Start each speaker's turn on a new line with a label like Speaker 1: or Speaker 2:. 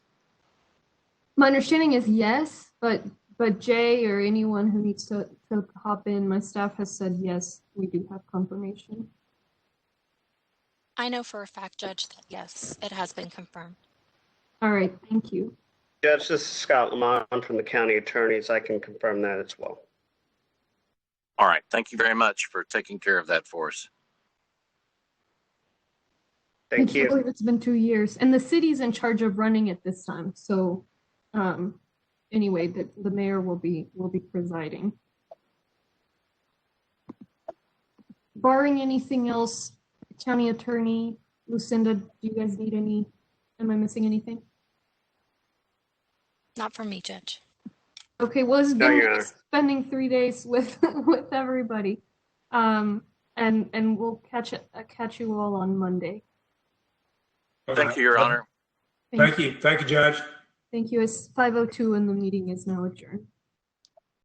Speaker 1: My understanding is yes, but, but Jay or anyone who needs to, to hop in, my staff has said yes, we do have confirmation.
Speaker 2: I know for a fact, Judge, that yes, it has been confirmed.
Speaker 1: All right, thank you.
Speaker 3: Judge, this is Scott Lamont from the county attorneys. I can confirm that as well.
Speaker 4: All right. Thank you very much for taking care of that for us.
Speaker 3: Thank
Speaker 1: I can't
Speaker 3: you.
Speaker 1: believe It's been two years, and the city's in charge of running it this time, so, um, anyway, the, the mayor will be, will be presiding. Barring anything else, county attorney, Lucinda, do you guys need any, am I missing anything?
Speaker 2: Not from me, Judge.
Speaker 1: Okay, well, it's
Speaker 3: No,
Speaker 1: been
Speaker 3: Your Honor.
Speaker 1: spending three days with, with everybody. Um, and, and we'll catch, it- uh, catch you all on Monday.
Speaker 4: Thank you, Your Honor.
Speaker 1: Thank
Speaker 5: Thank you, thank you, Judge.
Speaker 1: oh Thank you. It's 5:02 and the meeting is now adjourned.